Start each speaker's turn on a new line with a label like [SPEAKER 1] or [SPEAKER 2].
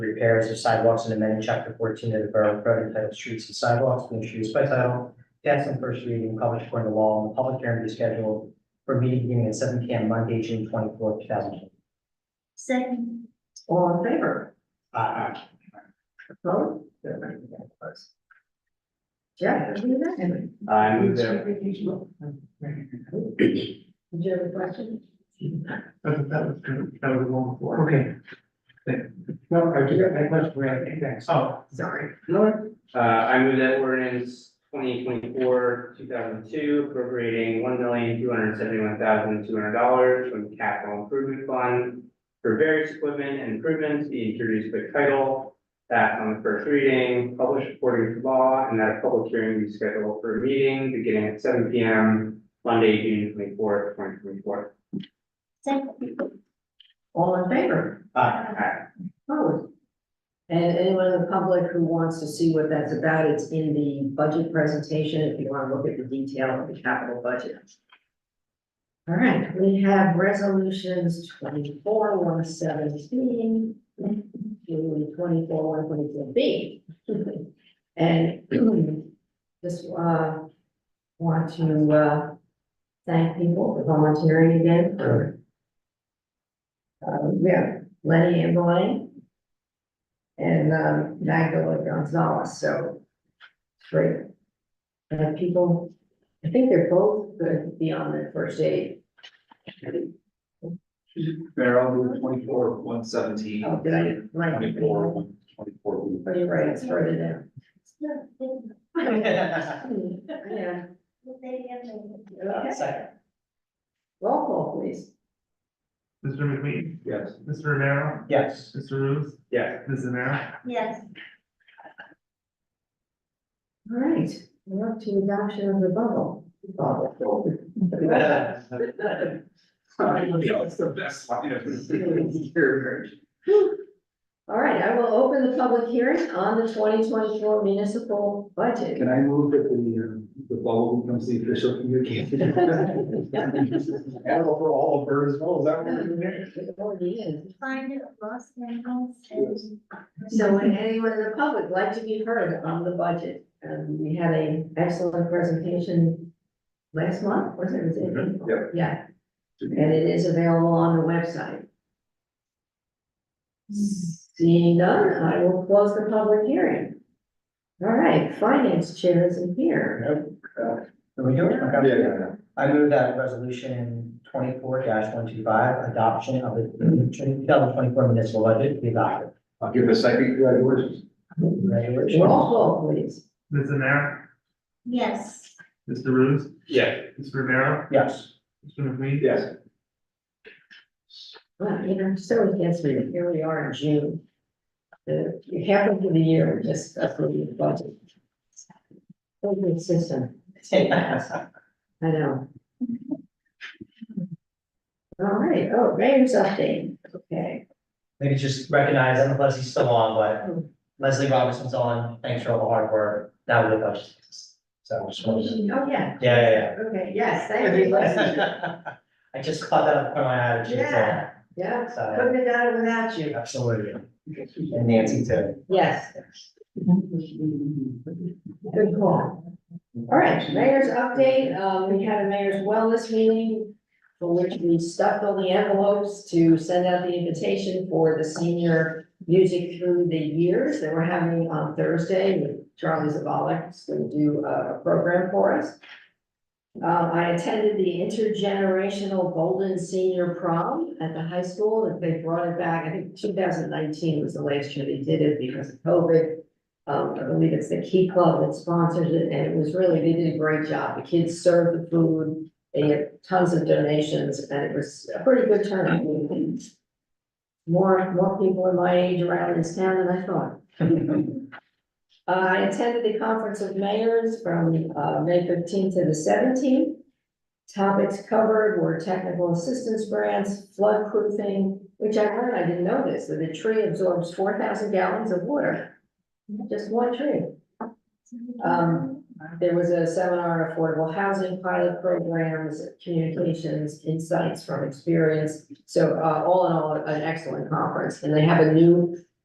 [SPEAKER 1] repairs of sidewalks and amending chapter fourteen of the Borough Code entitled Streets and Sidewalks being introduced by title, passed on first reading, and published according to law, and the public hearing is scheduled for a meeting beginning at seven P M Monday, June twenty-fourth, two thousand twenty.
[SPEAKER 2] Second,
[SPEAKER 3] All in favor?
[SPEAKER 1] Aye.
[SPEAKER 3] Vote? Jeff, are we ready?
[SPEAKER 4] I move that,
[SPEAKER 3] Did you have a question?
[SPEAKER 5] That, that was, good. that was long for.
[SPEAKER 4] okay.
[SPEAKER 5] No, I just, I was, thanks. Oh,
[SPEAKER 3] Sorry.
[SPEAKER 5] no,
[SPEAKER 4] Uh, I move that ordinance twenty twenty-four, two thousand two, appropriating one million, two hundred seventy-one thousand, two hundred dollars from the capital improvement fund for various equipment and improvements be introduced by title, that on the first reading, published according to law, and that a public hearing be scheduled for a meeting beginning at seven P M, Monday, June twenty-fourth, twenty twenty-four.
[SPEAKER 2] second,
[SPEAKER 3] All in favor? Opposed? And anyone in the public who wants to see what that's about, it's in the budget presentation, if you want to look at the detail of the capital budget. All right, we have resolutions twenty-four, one seventeen, twenty-four, one twenty-two B. And just, uh, want to, uh, thank people for volunteering again for uh, yeah, Lenny and Blaine. And, um, Magdalene Gonzalez, so. Great. And people, I think they're both going to be on their first aid.
[SPEAKER 6] Farrell, Route twenty-four, one seventeen.
[SPEAKER 3] Oh, did I, like?
[SPEAKER 6] Twenty-four, one, twenty-four.
[SPEAKER 3] Oh, you're right, it's further down.
[SPEAKER 1] Uh,
[SPEAKER 3] Yeah, okay,
[SPEAKER 1] Second.
[SPEAKER 3] roll call please.
[SPEAKER 5] Mr. McQueen,
[SPEAKER 6] Yes.
[SPEAKER 5] Mr. Romero,
[SPEAKER 1] Yes.
[SPEAKER 5] Mr. Ruth,
[SPEAKER 4] Yeah,
[SPEAKER 5] Ms. Zamara.
[SPEAKER 2] yes,
[SPEAKER 3] All right, we're up to adoption of the bubble. Bubble.
[SPEAKER 6] That's the best line I've ever heard.
[SPEAKER 3] All right, I will open the public hearing on the twenty twenty-four municipal budget.
[SPEAKER 6] Can I move that the, um, the bubble becomes the official communication? And for all of her as well, is that what we're doing?
[SPEAKER 3] It already is.
[SPEAKER 2] find it lost and lost and.
[SPEAKER 3] So would anyone in the public like to be heard on the budget? Um, we had an excellent presentation last month, was it? Was it? April?
[SPEAKER 6] Yep.
[SPEAKER 3] Yeah, and it is available on the website. Seeing none, I will close the public hearing. All right, finance chair isn't here.
[SPEAKER 1] Are we doing it?
[SPEAKER 6] Yeah,
[SPEAKER 1] Okay.
[SPEAKER 6] yeah, yeah.
[SPEAKER 1] I move that resolution twenty-four one two five, adoption of the two thousand twenty-four municipal budget be adopted.
[SPEAKER 6] I'll give a second congratulations.
[SPEAKER 1] Congratulations.
[SPEAKER 3] Roll call, please.
[SPEAKER 5] Ms. Zamara,
[SPEAKER 2] Yes,
[SPEAKER 5] Mr. Ruth,
[SPEAKER 4] yeah.
[SPEAKER 5] Mr. Romero,
[SPEAKER 1] Yes.
[SPEAKER 5] Mr. McQueen.
[SPEAKER 6] Yes.
[SPEAKER 3] Well, you know, so against me, here we are in June. The, half of the year, we just approving the budget. So consistent, I know. All right, oh, Graham's update, okay.
[SPEAKER 1] Maybe just recognize, I don't know if Leslie's still on, but Leslie Robinson's on, thanks for all the hard work, now with us. So, just
[SPEAKER 3] Oh,
[SPEAKER 1] wanted to-
[SPEAKER 3] yeah,
[SPEAKER 1] yeah,
[SPEAKER 3] okay,
[SPEAKER 1] yeah,
[SPEAKER 3] yes, thank you, Leslie.
[SPEAKER 1] yeah. I just caught that up from my eye, she's
[SPEAKER 3] Yeah, yeah,
[SPEAKER 1] so,
[SPEAKER 3] couldn't have done it without you,
[SPEAKER 1] absolutely, and Nancy too.
[SPEAKER 3] yes, good call. All right, mayor's update, um, we had a mayor's wellness meeting for which we stuffed all the envelopes to send out the invitation for the senior music through the years that we're having on Thursday with Charlie Zavalek, who's going to do a a program for us. Um, I attended the intergenerational Golden Senior Prom at the high school, and they brought it back, I think two thousand nineteen was the last year they did it because of COVID. Um, I believe it's the Key Club that sponsors it, and it was really, they did a great job. The kids served the food. They had tons of donations, and it was a pretty good turnout. More, more people in my age around this town than I thought. Uh, I attended the Conference of Mayors from, uh, May fifteenth to the seventeenth. Topics covered were technical assistance grants, flood proofing, which I learned, I didn't know this, that a tree absorbs four thousand gallons of water. Just one tree. Um, There was a seminar on affordable housing pilot programs, communications, insights from experience. So, uh, all in all, an excellent conference, and they have a new